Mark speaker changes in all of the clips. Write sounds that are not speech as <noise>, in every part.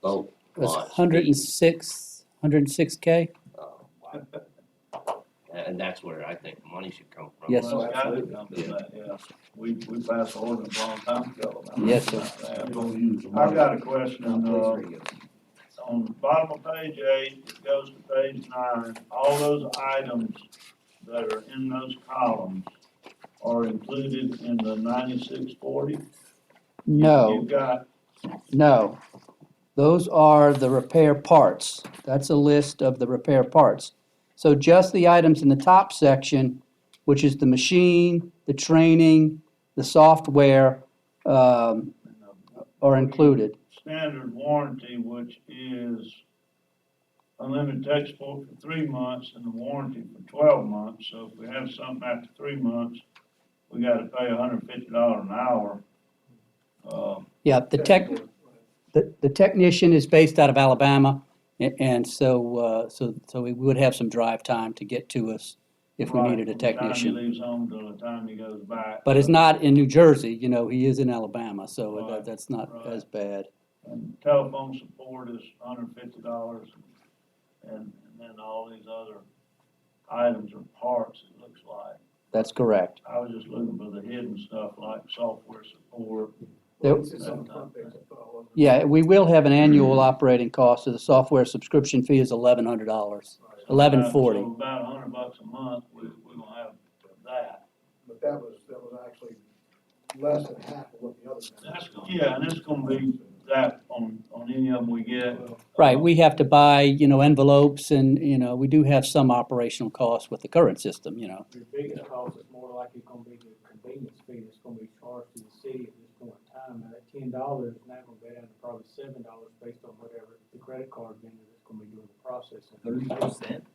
Speaker 1: boat
Speaker 2: It was
Speaker 1: launch.
Speaker 2: hundred and six, hundred and six K?
Speaker 1: Uh, And that's where I think the money should come from.
Speaker 2: Yes,
Speaker 3: Well, it's gotta come to that, yeah. We, we passed the ordinance a long time ago. about
Speaker 2: Yes, sir.
Speaker 3: that.
Speaker 4: Don't use them.
Speaker 3: I've got a question, uh,
Speaker 4: Please read it.
Speaker 3: on the bottom of page eight, it goes to page nine, all those items that are in those columns are included in the ninety-six forty?
Speaker 2: No,
Speaker 3: You've got,
Speaker 2: no. Those are the repair parts. That's a list of the repair parts. So just the items in the top section, which is the machine, the training, the software, um, are included.
Speaker 3: standard warranty, which is unlimited textbook for three months and the warranty for twelve months, so if we have something after three months, we gotta pay hundred and fifty dollars an hour. Uh,
Speaker 2: Yeah, the tech, the, the technician is based out of Alabama, a- and so, uh, so, so we would have some drive time to get to us if we
Speaker 3: right,
Speaker 2: needed a
Speaker 3: from the time he
Speaker 2: technician.
Speaker 3: leaves home till the time he goes back.
Speaker 2: But it's not in New Jersey, you know, he is in Alabama, so
Speaker 3: Right,
Speaker 2: that, that's not
Speaker 3: right.
Speaker 2: as bad.
Speaker 3: And telephone support is hundred and fifty dollars, and, and then all these other items or parts, it looks like.
Speaker 2: That's correct.
Speaker 3: I was just looking for the hidden stuff like software support.
Speaker 2: There-
Speaker 5: This is on front page of Paul, isn't it?
Speaker 2: Yeah, we will have an annual
Speaker 3: Mm-hmm.
Speaker 2: operating cost, so the software subscription fee is eleven hundred dollars.
Speaker 5: Right.
Speaker 2: Eleven forty.
Speaker 3: So About a hundred bucks a month, we, we gonna have that.
Speaker 5: But that was, that was actually less than half of what the other.
Speaker 3: That's, yeah, and it's gonna be that on, on any of them we get. uh,
Speaker 2: Right, we have to buy, you know, envelopes and, you know, we do have some operational costs with the current system, you know.
Speaker 6: Your biggest cost is more likely gonna be the convenience fee that's gonna be charged to the city at this point in time. Now, that ten dollars, now gonna go down to probably seven dollars based on whatever the credit card vendor that's gonna be doing the processing.
Speaker 4: Thirty percent?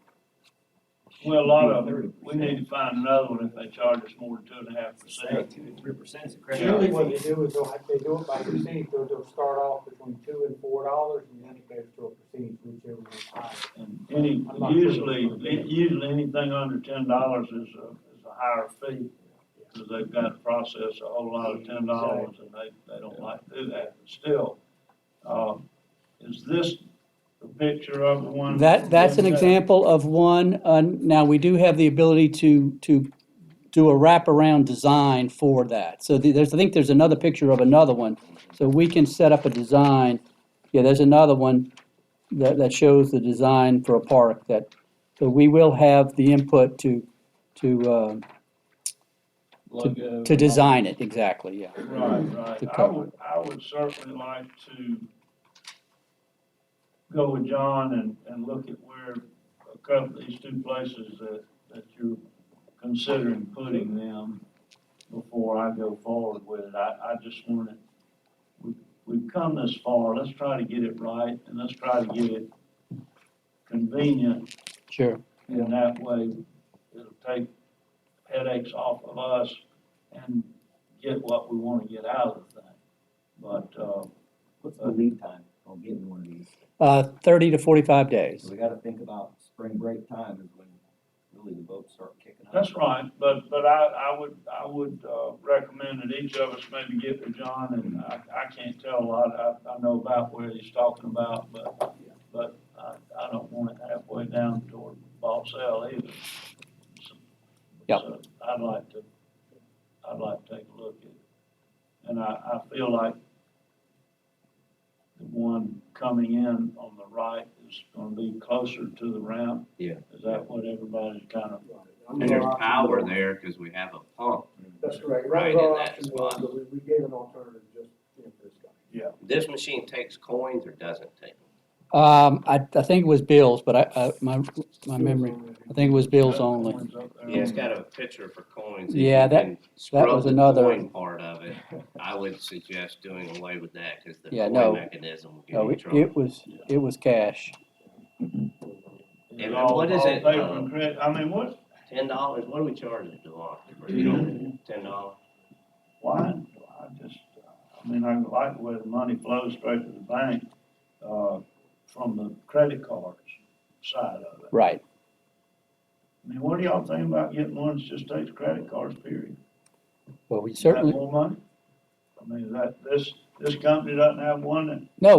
Speaker 3: Well, a lot of them, we need to find another one if they charge us more than two and a half percent.
Speaker 4: Two to three percent is a
Speaker 6: Generally,
Speaker 4: credit.
Speaker 6: what they do is they'll, if they do it by percentage, they'll, they'll start off between two and four dollars and then it goes to a percentage whichever is higher.
Speaker 3: And any, usually, usually anything under ten dollars is a, is a higher fee. Cause they've got to process a whole lot of ten dollars and they, they don't like to do that, but still. Um, is this the picture of the one?
Speaker 2: That, that's an example of one, uh, now, we do have the ability to, to do a wraparound design for that. So the- there's, I think there's another picture of another one, so we can set up a design. Yeah, there's another one that, that shows the design for a park that, so we will have the input to, to, um, to design it, exactly, yeah.
Speaker 3: uh, Right, right.
Speaker 2: To
Speaker 3: I
Speaker 2: cover.
Speaker 3: would, I would certainly like to go with John and, and look at where a couple, these two places that, that you're considering putting them before I go forward with it. I, I just want to, we, we've come this far, let's try to get it right and let's try to get it convenient
Speaker 2: Sure,
Speaker 3: and that way it'll take headaches off of us and get what we want to get out of the thing. But, uh,
Speaker 4: What's the lead time on getting one of these?
Speaker 2: uh, thirty to forty-five days.
Speaker 4: So we gotta think about spring break time is when really the boats start kicking up.
Speaker 3: that's right, but, but I, I would, I would, uh, recommend that each of us maybe get with John, and I, I can't tell a lot, I, I know about where he's talking about, but, but I, I don't want it halfway down toward Bobsell either. So-
Speaker 2: Yep.
Speaker 3: so I'd like to, I'd like to take a look at it, and I, I feel like the one coming in on the right is gonna be closer to the ramp.
Speaker 1: Yeah.
Speaker 3: Is that what everybody's kind of
Speaker 5: And
Speaker 1: And there's power there because we have a pump.
Speaker 5: That's correct.
Speaker 1: Right
Speaker 5: Right,
Speaker 1: in
Speaker 5: our
Speaker 1: that
Speaker 5: option was,
Speaker 1: spot.
Speaker 5: but we, we gave an alternative just, you know, for this guy.
Speaker 1: This machine takes coins or doesn't take?
Speaker 2: Um, I, I think it was Bill's, but I, I, my, my memory, I think it was Bill's only.
Speaker 3: One's up there.
Speaker 1: Yeah, it's got a picture for coins. If
Speaker 2: Yeah,
Speaker 1: you
Speaker 2: that-
Speaker 1: can scrub
Speaker 2: was
Speaker 1: the
Speaker 2: another-
Speaker 1: coin Part of
Speaker 2: <laughs>
Speaker 1: it, I would suggest doing away with that because the
Speaker 2: Yeah, no.
Speaker 1: coin mechanism will
Speaker 2: No,
Speaker 1: give
Speaker 2: it,
Speaker 1: you
Speaker 2: it
Speaker 1: trouble.
Speaker 2: was, it was cash.
Speaker 1: And
Speaker 3: all-
Speaker 1: what is
Speaker 3: all
Speaker 1: it,
Speaker 3: paper
Speaker 1: uh,
Speaker 3: and credit. I mean, what,
Speaker 1: Ten dollars, what do we charge it to launch? You know, ten dollars?
Speaker 3: why, I just, I mean, I like the way the money flows straight to the bank, uh, from the credit cards side of it.
Speaker 2: Right.
Speaker 3: I mean, what do y'all think about getting one that just takes credit cards, period?
Speaker 2: Well, we
Speaker 3: Is that
Speaker 2: certainly,
Speaker 3: More money? I mean, is that, this, this company doesn't have one that
Speaker 2: no,